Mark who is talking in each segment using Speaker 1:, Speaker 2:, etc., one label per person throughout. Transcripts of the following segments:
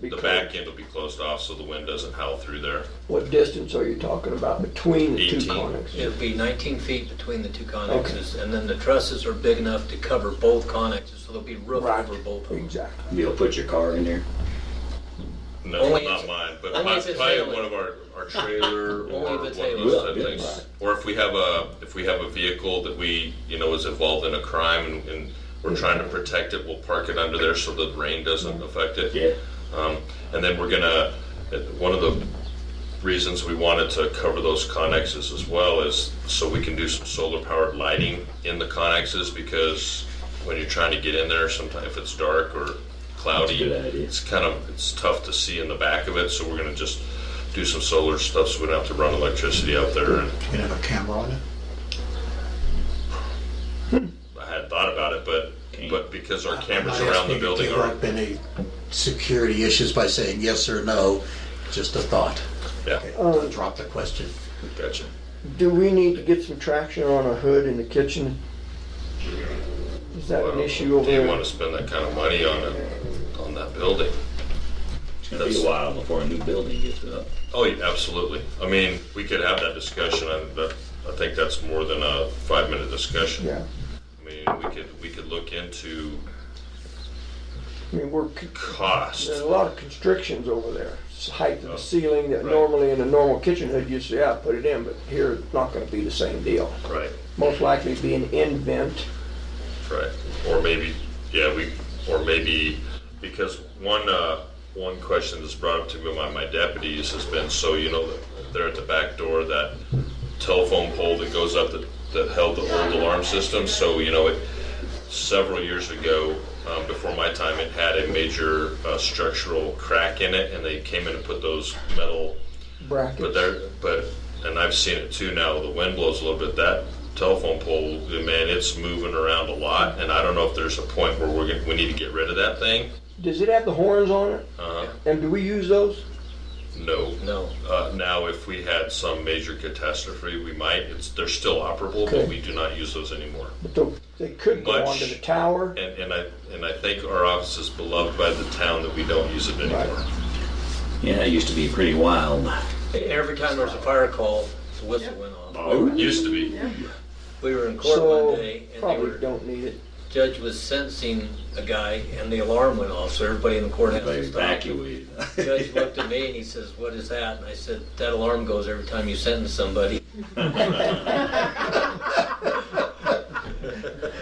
Speaker 1: be
Speaker 2: The
Speaker 1: clear.
Speaker 2: back end will be closed off so the wind doesn't howl through there.
Speaker 1: What distance are you talking about between the two
Speaker 2: 18.
Speaker 1: conics?
Speaker 3: It'd be 19 feet between the two
Speaker 1: Okay.
Speaker 3: connexes, and then the trusses are big enough to cover both connexes, so there'll be roof
Speaker 1: Right.
Speaker 3: over both of them.
Speaker 1: Exactly.
Speaker 4: You'll put your car in there.
Speaker 2: No,
Speaker 3: Only
Speaker 2: not
Speaker 3: if-
Speaker 2: mine, but
Speaker 3: only
Speaker 2: my-
Speaker 3: if it's
Speaker 2: probably
Speaker 3: hailing.
Speaker 2: one of our, our trailer
Speaker 3: Only
Speaker 2: or one
Speaker 3: if
Speaker 2: of
Speaker 3: it's
Speaker 2: those type
Speaker 4: hailing.
Speaker 2: things. Or if we have a, if we have a vehicle that we, you know, is involved in a crime and, and we're trying to protect it, we'll park it under there so the rain doesn't affect it.
Speaker 4: Yeah.
Speaker 2: Um, and then we're gonna, uh, one of the reasons we wanted to cover those connexes as well is so we can do some solar powered lighting in the connexes because when you're trying to get in there, sometimes if it's dark or cloudy,
Speaker 4: That's a good idea.
Speaker 2: it's kind of, it's tough to see in the back of it, so we're gonna just do some solar stuff so we don't have to run electricity out there and
Speaker 5: You can have a camera on it.
Speaker 2: I hadn't thought about it, but, but because our cameras
Speaker 5: I'm not
Speaker 2: around
Speaker 5: asking
Speaker 2: the
Speaker 5: you
Speaker 2: building
Speaker 5: to
Speaker 2: are,
Speaker 5: give up any security issues by saying yes or no, just a thought.
Speaker 2: yeah,
Speaker 5: Okay, Drop the question.
Speaker 2: gotcha.
Speaker 1: Do we need to get some traction on a hood in the kitchen? Is that an issue over
Speaker 2: Do you
Speaker 1: there?
Speaker 2: wanna spend that kind of money on it, on that building?
Speaker 4: It's gonna be
Speaker 2: That's-
Speaker 4: a while before a new building gets up.
Speaker 2: Oh, yeah, absolutely. I mean, we could have that discussion, and that, I think that's more than a five-minute discussion.
Speaker 1: Yeah,
Speaker 2: I mean, we could, we could look into
Speaker 1: I mean, we're, c-
Speaker 2: cost.
Speaker 1: there's a lot of constrictions over there. It's the height of
Speaker 2: Oh,
Speaker 1: the ceiling that
Speaker 2: right.
Speaker 1: normally in a normal kitchen hood, you say, yeah, put it in, but here it's not gonna be the same deal.
Speaker 2: Right,
Speaker 1: Most likely be an end vent.
Speaker 2: right. Or maybe, yeah, we, or maybe, because one, uh, one question that's brought up to me by my deputies has been, so you know, that there at the back door, that telephone pole that goes up that, that held the old alarm system, so you know, it, several years ago, um, before my time, it had a major uh, structural crack in it, and they came in and put those metal. But
Speaker 1: brackets.
Speaker 2: there, but and I've seen it too now. The wind blows a little bit. That telephone pole, man, it's moving around a lot, and I don't know if there's a point where we're gonna, we need to get rid of that thing.
Speaker 1: Does it have the horns on it?
Speaker 2: Uh,
Speaker 1: And do we use those?
Speaker 2: no.
Speaker 3: No,
Speaker 2: Uh, now, if we had some major catastrophe, we might. It's, they're still operable,
Speaker 1: Okay.
Speaker 2: but we do not use those anymore.
Speaker 1: But tho- they could go
Speaker 2: Much.
Speaker 1: onto the tower.
Speaker 2: And, and I and I think our office is beloved by the town that we don't use it anymore.
Speaker 1: Right.
Speaker 4: Yeah, it used to be pretty wild.
Speaker 3: every time there was a fire call, the whistle went off.
Speaker 2: Oh, it used to be.
Speaker 3: We were in court one
Speaker 1: So
Speaker 3: day, and they
Speaker 1: probably
Speaker 3: were,
Speaker 1: don't need it.
Speaker 3: judge was sentencing a guy, and the alarm went off, so everybody in the
Speaker 4: They
Speaker 3: courthouse stopped.
Speaker 4: evacuated.
Speaker 3: Judge looked at me and he says, "What is that?" And I said, "That alarm goes every time you sentence somebody."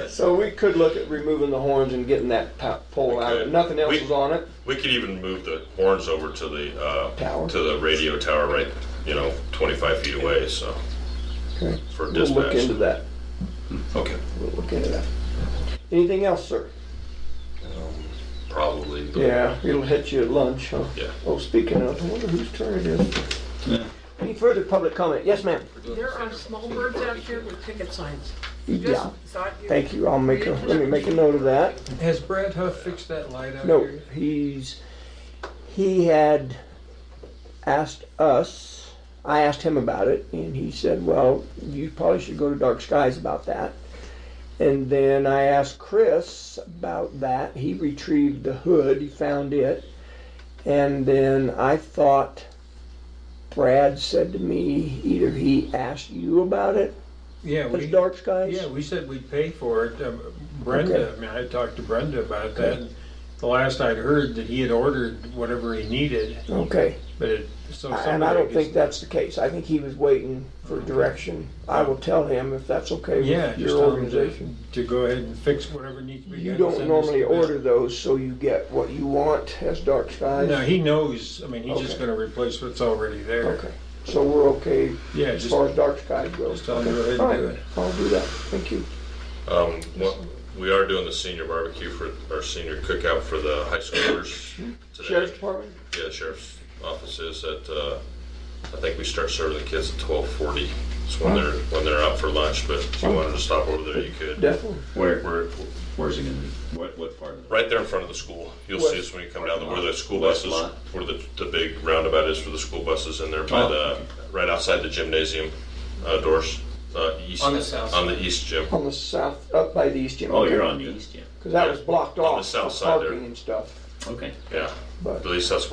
Speaker 1: So we could look at removing the horns and getting that po- pole
Speaker 2: We
Speaker 1: out. If
Speaker 2: could.
Speaker 1: Nothing else
Speaker 2: We-
Speaker 1: is on it.
Speaker 2: We could even move the horns over to the uh,
Speaker 1: Tower.
Speaker 2: to the radio tower, right? You know, 25 feet away. So
Speaker 1: Okay.
Speaker 2: for
Speaker 1: We'll
Speaker 2: dispatch.
Speaker 1: look into that.
Speaker 2: Okay.
Speaker 1: We'll look into that. Anything else, sir?
Speaker 2: Probably. but-
Speaker 1: Yeah, it'll hit you at lunch, huh?
Speaker 2: Yeah.
Speaker 1: Oh, speaking of, I wonder whose turn it is. Any further public comment? Yes, ma'am.
Speaker 6: There are small birds out here with ticket signs.
Speaker 1: Yeah.
Speaker 6: Just thought you.
Speaker 1: Thank you. I'll make a, let me make a note of that.
Speaker 7: Has Brad Huff fixed that light out
Speaker 1: No,
Speaker 7: here?
Speaker 1: he's, he had asked us, I asked him about it, and he said, well, you probably should go to Dark Skies about that. And then I asked Chris about that. He retrieved the hood, he found it. And then I thought Brad said to me, either he asked you about it,
Speaker 7: Yeah,
Speaker 1: it's
Speaker 7: we,
Speaker 1: Dark Skies?
Speaker 7: yeah, we said we'd pay for it. Um, Brenda, I mean, I talked to Brenda about that. and The last I'd heard that he had ordered whatever he needed,
Speaker 1: Okay.
Speaker 7: but it, so somebody.
Speaker 1: And I don't think
Speaker 7: just-
Speaker 1: that's the case. I think he was waiting for direction. I will tell him if that's okay with
Speaker 7: Yeah, just
Speaker 1: your
Speaker 7: tell him
Speaker 1: organization.
Speaker 7: to, to go ahead and fix whatever needs to be done.
Speaker 1: You
Speaker 7: and
Speaker 1: don't
Speaker 7: send us
Speaker 1: normally
Speaker 7: the bill.
Speaker 1: order those, so you get what you want as dark
Speaker 7: No,
Speaker 1: skies?
Speaker 7: he knows, I mean, he's just
Speaker 1: Okay.
Speaker 7: gonna replace what's already there.
Speaker 1: Okay, so we're okay
Speaker 7: Yeah,
Speaker 1: as
Speaker 7: just,
Speaker 1: far as dark skies
Speaker 7: just
Speaker 1: goes?
Speaker 7: tell him to go ahead
Speaker 1: All
Speaker 7: and do
Speaker 1: right,
Speaker 7: it.
Speaker 1: I'll do that. Thank you.
Speaker 2: Um, what- we are doing the senior barbecue for our senior cookout for the high schoolers today.
Speaker 1: Sheriff's Department?
Speaker 2: Yeah, the sheriff's office is at. Uh, I think we start serving the kids at 12:40. It's when they're when they're out for lunch. But if you wanted to stop over there, you could.
Speaker 1: Definitely.
Speaker 4: Where,
Speaker 2: We're
Speaker 4: where's it gonna be? What, what part of the?
Speaker 2: right there in front of the school. You'll see us when you come down where the school
Speaker 4: West
Speaker 2: buses,
Speaker 4: lot.
Speaker 2: where the, the big roundabout is for the school buses, and they're by
Speaker 4: Oh,
Speaker 2: the right outside the gymnasium uh, doors. Uh, east,
Speaker 3: On the south
Speaker 2: on the east gym.
Speaker 1: On the south, up by the east gym.
Speaker 4: Oh, you're on the east, yeah.
Speaker 1: Because that was blocked
Speaker 2: On the
Speaker 1: off
Speaker 2: south
Speaker 1: for
Speaker 2: side there.
Speaker 1: parking and stuff,
Speaker 4: Okay.
Speaker 2: Yeah,
Speaker 1: but.
Speaker 2: at least that's